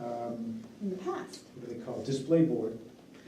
in the past. um, what do they call it, display board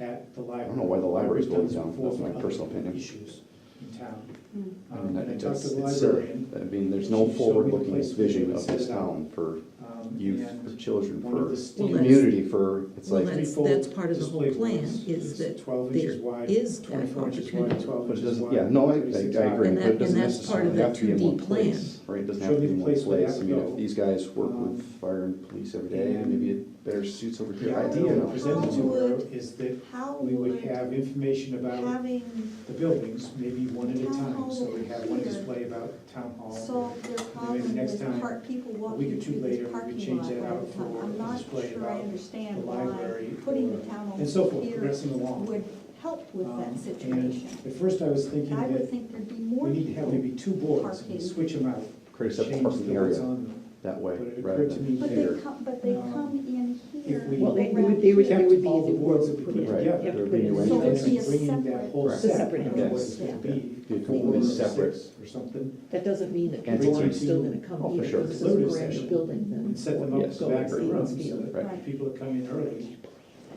at the library. I don't know why the library's We've done this going down. before That's my for personal other opinion. Issues in town. Hmm. Mm. Um, And I talked to the It's silly. librarian. I mean, there's She no showed me the forward-looking place where they vision would of set this it up. town for um, youth, and for children, One of for the Well, standard that's- community, for, it's Well, like, that's- three-fold that's part of the whole display plan, boards is that Twelve there inches wide, is that twenty-four inches wide, opportunity. twelve but it inches doesn't, wide. yeah, no, I, I I 36 high. agree, And but that- it doesn't and that's part necessarily of have that to be in one 2D plan. place, right? It doesn't have Show to me be in the one place where that place, I would mean, go. if these guys work Um, with fire and police every day, and- maybe it better suits over The here, I don't idea know. presented to her Would- is that How we would would have uh, information about having the buildings, maybe one at a Town time, hall so we have one here. display about town hall. solved their maybe problem next with time, park, people a week walking or two through later, this we parking change lot all that out the time? for I'm a not display sure I about the understand why library putting or- the town And so hall forth, here progressing along. would help with Um, that and situation. At first I was thinking I would that think there'd be we more need to have people, maybe two boards, and Parking. switch them out, Create a separate change the parking what's area on them. that way, But it rather occurred to than, me but here, they come, but they um, come in here. if we Well, they around would, they would, here. they would be. All the they boards would that put put it- right, together. yeah, there would put be it in new So and it'd entrances. be a bringing that separate- whole Right. It's a set, separate you know, what it entrance, could yeah. be, Be a four or completely separate, six or something, That doesn't mean that Entity. people aren't still gonna Oh, come for here, sure. this is a Deliberative brand new session. building then. and set them up Yes, in the back agree. rooms, so that right, Right. people that come in early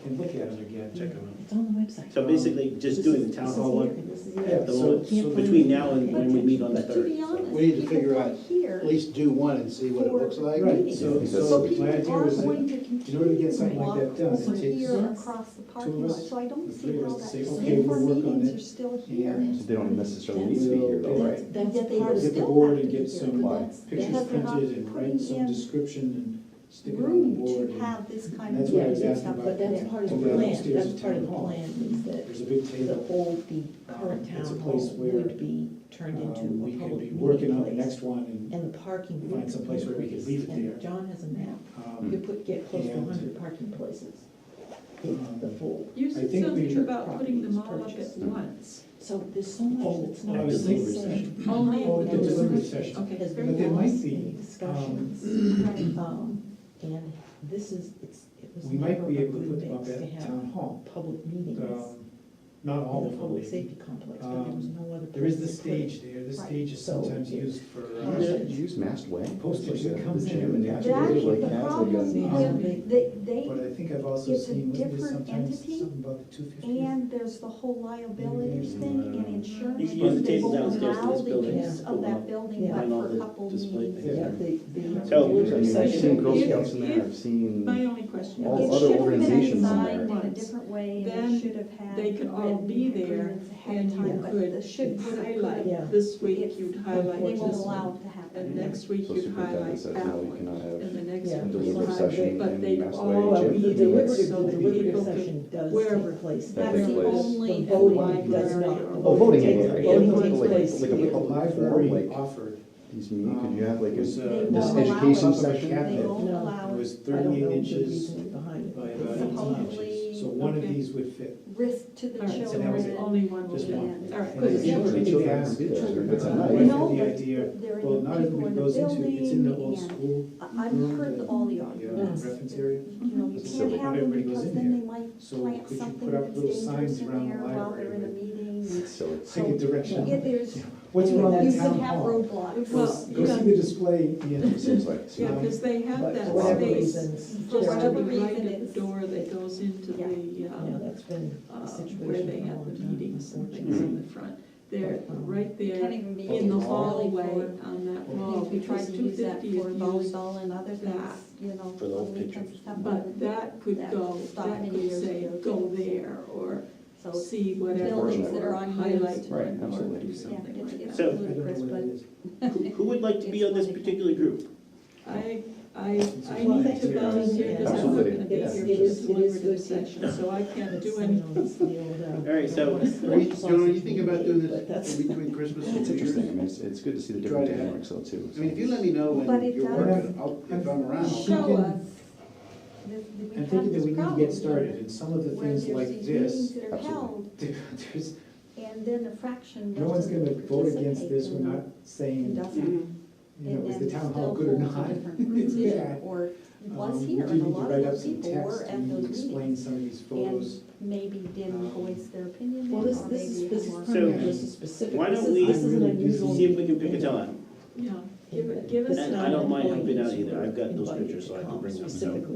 can look at them again. Check them It's on the website. So basically, just This doing is- the town this is hall here, one, and this is Yeah, here. at the so- moment, so between now and when we meet on the But to third. be honest, so. We need to people figure come out here At least do one and see what it looks like. for Right, meetings. so, Yes. so So my people idea are was that going to in order to continue get to something walk like that done, over it takes here Yes. across the of parking lot, us, so I don't the see three of us how that, to say, so okay, if our we'll work on meetings it are still here. and they don't necessarily need to be here though, right? That's That's they part Or of get was the. the still board have to and be get here, some but like, that's- pictures because they're not printed and write putting some in description and stick it on the Room board. to and have this kind that's of. what I Yeah, was asking stuff about. But that's there. part of the Over there plan, upstairs that's is part of the town hall. plan, is that There's a big the table. whole, the current Um, it's a town place hall where, would be turned Um, into a We could public be meeting working on the place. next one and, And the parking would. find someplace where we could leave it increase. there. And John has a map, you um, could put, get close to And- hundred parking places. It's Um, the full, You I said think we- something about putting them all up Purchase. at once. so there's so much Oh, that's not. I was really thinking said. recession. Only Oh, at the the- deliberative session. Okay, Has very been But there well. might lost be, in discussions, Right. um, and this is, it's, it was we might never be a able to good put them up mix to at have town hall. public meetings in Um, Not all the of them, public maybe. safety complex, but there was Um, no other. There is the place to put it. stage there, the Right. stage is So- sometimes used for. You uh, Yeah. should Use masked way. Postage Like, uh, that comes the in gym and and that, out. like, That's Actually, the that's like a- problem with, they, they, But I think I've also It's a seen, what is different sometimes entity, something about the two fifty? And there's the whole liability thing and Mm-hmm. insurance. You can use the They table won't downstairs in this allow the building. use Of that building, Yeah. I but know for a the couple display meetings. thing. Yeah, the, the. So- I mean, I've seen Girl If- Scouts in there, I've if- seen. My only question All is, other It should have been organizations in there. designed in a different way and Then it should have had. they could all written be there agreements ahead and of time, you but the- could should- would have been- Yeah. highlight, this week you'd They highlight Which won't is- this allow one, it to and happen. next week So you'd superintendent highlight says, that no, you cannot one, have and the next Yeah. week you'd deliberative highlight. session But and they'd mass all way, Well, gym, be the that's- there deliberative, so the that deliberative people could- session does wherever. take place. That That's takes the place. only The voting does library not. or. Oh, voting Voting area, takes- yeah, voting like- takes like- place like a here. The library offered. These mean, could um, you have like was, a, uh, They it won't this allow it. education They section? won't No. allow it. was I don't thirty-eight know the inches reasoning behind it. by about eighteen inches, Supposedly- so one of Okay. these would fit. risk to the All right, so that was it. there's children. only one Just meeting. one. All And right. I Because think- the I think children they have to asked, be there, so children, if that's it's a at night, night- No, the but idea, There well, are not people everybody in the goes into, it. it's in the building old and school, I- I've heard the- all the uh, arguments. reference area. You know, you So can't not have them everybody goes because in then they might So plant could you something put up that's little dangerous signs in around the there while library they're in a with- meeting. Silly. Take a direction. Yeah, there's, What's Yeah, wrong you with could town have hall? roadblocks. Go Well, s- go see the display, you know, Seems like. Yeah, because they have But for that whatever space, reasons, for there are- whatever Whatever reason reason, it's- the door that goes into Yeah. the, Yeah, um, that's been uh, a situation. where they for a have the long time, meetings and things unfortunately. in the front. They're But, um, Can't right there even be in the used really hallway for- on that wall, If we tried because to two use that fifty for is used. volleyball and other that things, you know. for the on old weekends pictures. and stuff, But that could That go, stopped that many could years say, ago. go there, or So, see whatever, Buildings that are or highlight unused. Right, one, or absolutely. do yeah, something it's, like it's So- I don't know ludicrous, what it but is. Who who would like to be on this particular group? that. I, I, I Well, need thanks for to volunteer, because I'm not Absolutely. gonna be here Yes, for it is- this it is good deliberative to- session, so I can't It's, do you anything. know, it's the old, uh, All right, so- Are you, John, are you thinking about doing But this that's- between Christmas and It's New Year's? interesting, I mean, it's, it's good to see the different Try to- dynamics though too. I mean, if you let me know But when it you're does- working, I'll, if I'm around. I'll- thinking- show us that we I'm have thinking that this we need to problem get started, here, and some of the Where things there's like these meetings this, that are Absolutely. held, there's, and then a fraction no one's gonna doesn't vote against this, we're not participate and saying, doesn't. you know, And is then the town still hall good or holds a not? different It's position, bad. Or was Um, here, we and do a need to lot write of up those some people text were at and those Explain meetings, some of these photos. and maybe didn't um, voice their opinion Well, then, this, or this is, maybe had this is more. permanent, So, this is specific, why this don't is, we this is an really do unusual. See if we can pick a meeting. time. Yeah, give it, give us. This And is I not don't mind employees helping out who either. are I've got those invited pictures, to so I can come bring them, so- Specifically.